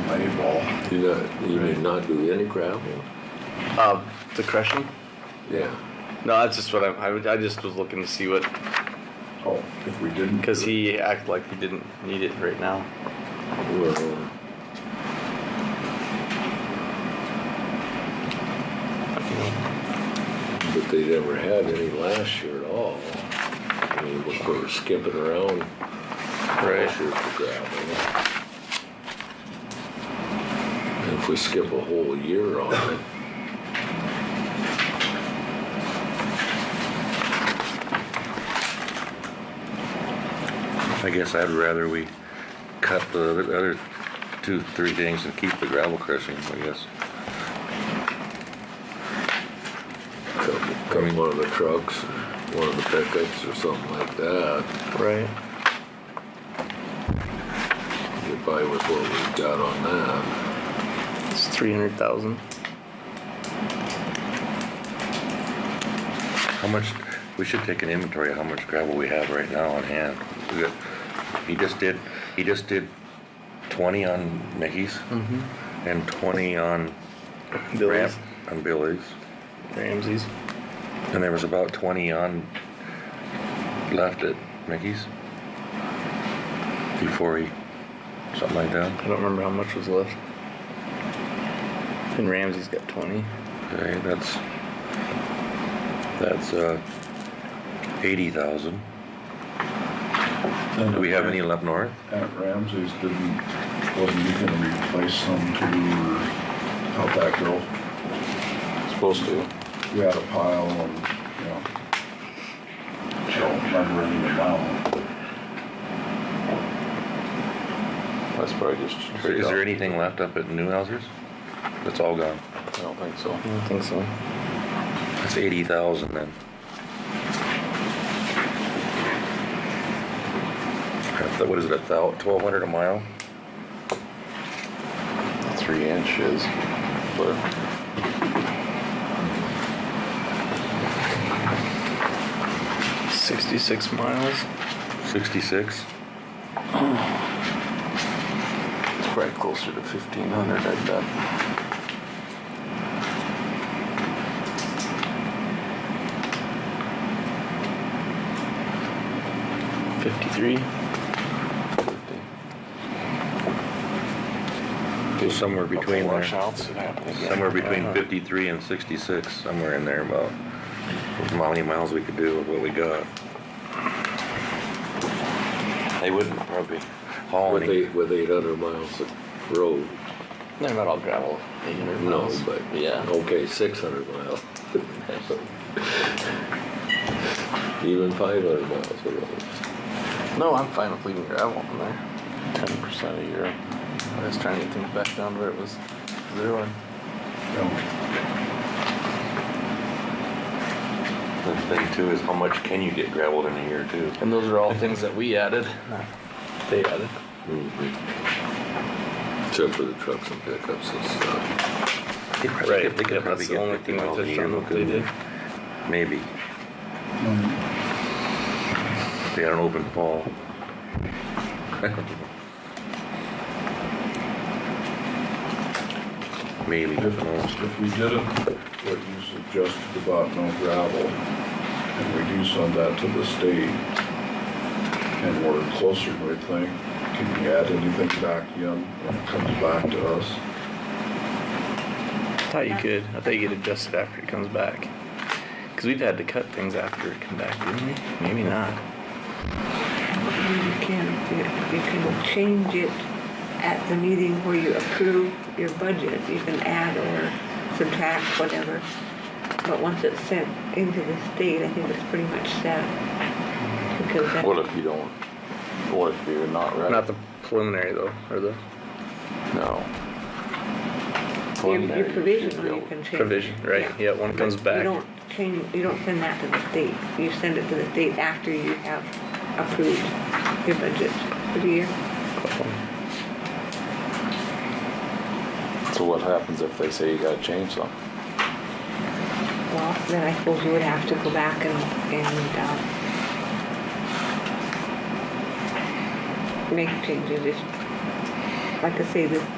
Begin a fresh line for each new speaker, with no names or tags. label.
Do not, you mean not do any gravel?
Uh, the crushing?
Yeah.
No, that's just what I'm, I, would- I just was looking to see what,
Oh, if we didn't.
because he acted like he didn't need it right now.
Well, but they never had any last year at all. I mean, we were skipping around last year for gravel. And If we skip a whole year on it.
I guess I'd rather we cut the other- other two, three things and keep the gravel crushing, I guess.
Come, come one of the trucks, one of the pickups or something like that,
Right.
get by with what we've got on that.
It's three hundred thousand.
How much, we should take an inventory of how much gravel we have right now on hand. We got- He just did, he just did twenty on Mickey's
Mm-hmm.
and twenty on Ramp,
Billy's,
on Billy's.
Ramsey's.
And there was about twenty on, left at Mickey's. Before he, something like that.
I don't remember how much was left. And Ramsey's got twenty.
Okay, that's, that's, uh, eighty thousand. Do we have any left north?
At Ramsey's didn't, wasn't he gonna replace some to help that girl?
Supposed to.
We had a pile and, you know. I don't remember any amount.
That's probably just.
Is there- is there anything left up at Newhouses? That's all gone.
I don't think so.
I don't think so.
That's eighty thousand then. I thought- What is it, a thou, twelve hundred a mile?
Three inches, but.
Sixty-six miles.
Sixty-six?
It's probably closer to fifteen hundred, I bet.
Fifty-three.
So somewhere between there.
Washouts that happen again.
Somewhere
Uh-huh.
between fifty-three and sixty-six, somewhere in there about how many miles we could do with what we got.
They wouldn't probably. With
Hauling it.
eight, with eight hundred miles of road,
They're not all gravel. 800
no,
miles.
but.
yeah.
Okay, six hundred miles. Even five hundred miles of road.
No, I'm fine with leaving gravel in there. Ten percent a year. I was trying to get things back down to where it was zero.
You know,
The thing too is how much can you get gravelled in a year too?
And those are all things that we added. They added.
Mm-hmm.
Except for the trucks and pickups and stuff.
They probably could- They could probably
That's the
get
only
fifty
thing I
miles a
touched
year.
on what they did.
couldn't they? Maybe. If They had an open fall. Maybe,
If,
who knows?
if we did it, what you suggested about no gravel, and we do send that to the state, and we're closer than we think, can we add anything back in when it comes back to us?
I thought you could. I thought you could adjust it after it comes back. Because we've had to cut things after it come back, didn't we? Maybe not.
You can, you can change it at the meeting where you approve your budget. You can add or subtract, whatever. But once it's sent into the state, I think it's pretty much set. Because that,
What if you don't, what if you're not ready?
Not the preliminary though, or the
No.
your-
One there,
your
you should be
provisional, you
able-
can change.
provision, right? Yeah, when it comes
You
back.
don't change, you don't send that to the state. You send it to the state after you have approved your budget for the year.
So what happens if they say you gotta change something?
Well, then I suppose you would have to go back and, and, um, make changes if, uh, like I say, this,